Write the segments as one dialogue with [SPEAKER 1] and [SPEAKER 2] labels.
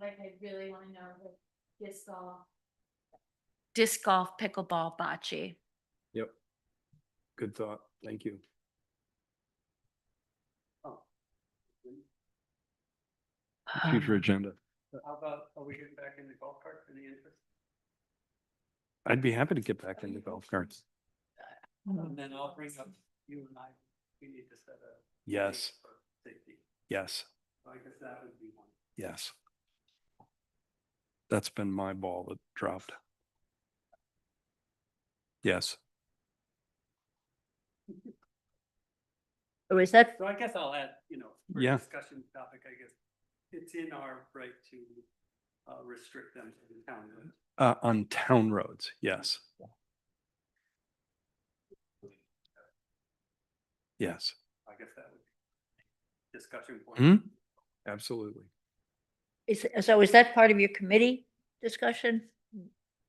[SPEAKER 1] like, I really wanna know the disc golf.
[SPEAKER 2] disc golf, pickleball, bocce.
[SPEAKER 3] Yep. Good thought. Thank you. Future agenda.
[SPEAKER 4] How about, are we getting back in the golf cart for the interest?
[SPEAKER 3] I'd be happy to get back into golf carts.
[SPEAKER 5] Mm-hmm.
[SPEAKER 4] And then I'll bring up you and I, we need to set a. date
[SPEAKER 3] Yes,
[SPEAKER 4] for Safety,
[SPEAKER 3] yes,
[SPEAKER 4] So I guess that would be one.
[SPEAKER 3] yes. That's been my ball that dropped. Yes,
[SPEAKER 5] Or is that,
[SPEAKER 4] So I guess I'll add, you know, for
[SPEAKER 3] Yeah.
[SPEAKER 4] discussion topic, I guess, it's in our right to uh, restrict them to the town. limits.
[SPEAKER 3] uh, on town roads, yes. Yes,
[SPEAKER 4] I guess that would be discussion
[SPEAKER 3] Hmm?
[SPEAKER 4] point.
[SPEAKER 3] absolutely.
[SPEAKER 5] is, so is that part of your committee discussion?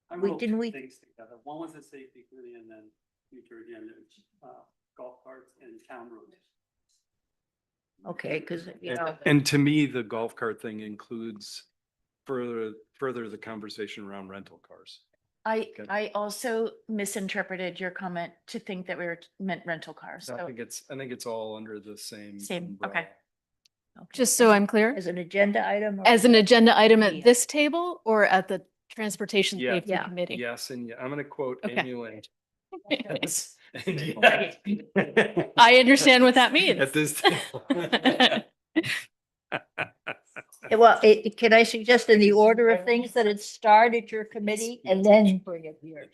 [SPEAKER 4] I
[SPEAKER 5] We-
[SPEAKER 4] wrote
[SPEAKER 5] didn't
[SPEAKER 4] two
[SPEAKER 5] we-
[SPEAKER 4] Things together. One was the safety committee and then future agenda, which, uh, golf carts and town roads.
[SPEAKER 5] Okay, because, you
[SPEAKER 3] And-
[SPEAKER 5] know,
[SPEAKER 3] And to me, the golf cart thing includes further, further the conversation around rental cars.
[SPEAKER 2] I,
[SPEAKER 3] Okay.
[SPEAKER 2] I also misinterpreted your comment to think that we were meant rental cars.
[SPEAKER 3] I
[SPEAKER 2] So,
[SPEAKER 3] think it's, I think it's all under the same.
[SPEAKER 2] Same, okay.
[SPEAKER 3] umbrella.
[SPEAKER 2] okay.
[SPEAKER 6] Just so I'm clear,
[SPEAKER 5] as an agenda item? or
[SPEAKER 6] as an agenda item
[SPEAKER 2] Yeah.
[SPEAKER 6] at this table or at the Transportation
[SPEAKER 3] Yeah.
[SPEAKER 6] Safety
[SPEAKER 5] Yeah.
[SPEAKER 6] Committee?
[SPEAKER 3] Yes, and yeah, I'm gonna quote
[SPEAKER 6] Okay.
[SPEAKER 3] Amy Lynch. Yes. and
[SPEAKER 6] Right.
[SPEAKER 3] yes.
[SPEAKER 6] I understand what that
[SPEAKER 3] At
[SPEAKER 6] means.
[SPEAKER 3] this.
[SPEAKER 5] Yeah, Well, it, it- can I suggest in the order of things that it start at your committee and then bring it here?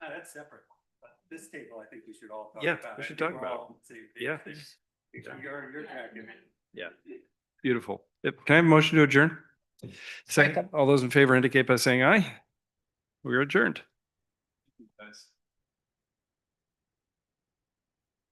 [SPEAKER 4] Uh, that's separate. But this table, I think we should all talk about.
[SPEAKER 3] Yeah, we
[SPEAKER 4] I
[SPEAKER 3] should
[SPEAKER 4] think
[SPEAKER 3] talk
[SPEAKER 4] we're
[SPEAKER 3] about
[SPEAKER 4] all on the same page
[SPEAKER 3] Yeah.
[SPEAKER 4] there. Because You're, in your packet.
[SPEAKER 3] Yeah. Beautiful. Yep. Can I have a motion to adjourn? Second, all those in favor indicate by saying aye. We are adjourned. Guys.